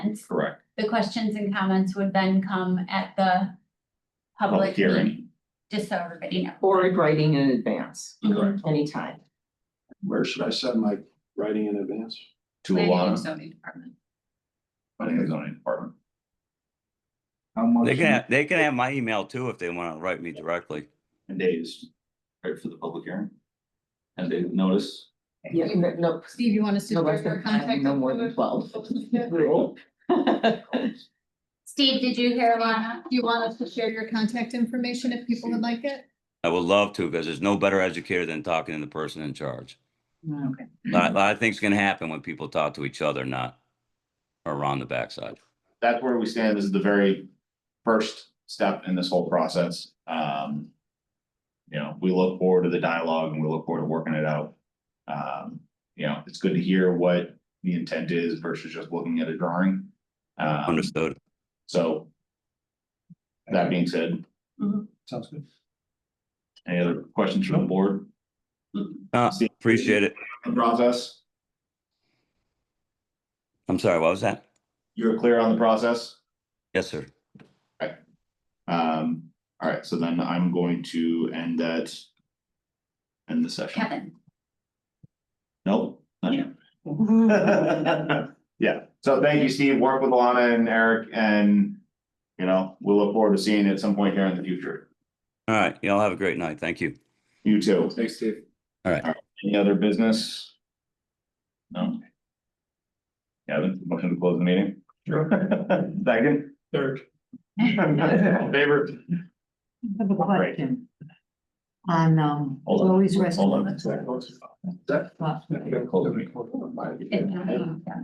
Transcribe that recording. comments. Correct. The questions and comments would then come at the Public public hearing. hearing, just so everybody knows. Or in writing in advance, Correct. anytime. Where should I send my writing in advance? To Mm-hmm. Planning and Alana, zoning department. planning and zoning department. How much? They can, they can have my email too if they want to write me directly. And days, right, for the public hearing. And they notice, Yeah, no, no, Steve, you want us to no share less your than, contact? no more than twelve. Do Steve, did you hear Alana? you want us to share your contact information if people would like it? I would love to because there's no better educator than talking to the person in charge. Okay. A lot, a lot of things can happen when people talk to each other, not around the backside. that's where we stand, this is the very first step in this whole process, um. You know, we look forward to the dialogue and we look forward to working it out. Um, you know, it's good to hear what the intent is versus just looking at a drawing. Um Understood. so. That being said, Sounds good. any other questions from the board? Uh, See- appreciate it. The Process, I'm sorry, what was that? you're clear on the process? Yes, sir. Um, all right, so then I'm going to end that. End the session. Kevin, Nope. not yet. Yeah, so thank you, Steve. Work with Alana and Eric and, you know, we'll look forward to seeing you at some point here in the future. All right. Y'all have a great night. Thank you. You too. Thanks, Steve. Any other business? No? Kevin, motion to close the meeting? Sure. Second? Third. Favor? I have a Right. question. On, um, Hold on. Chloe's Hold on. restaurant. Is that- What? Close the meeting. it's not.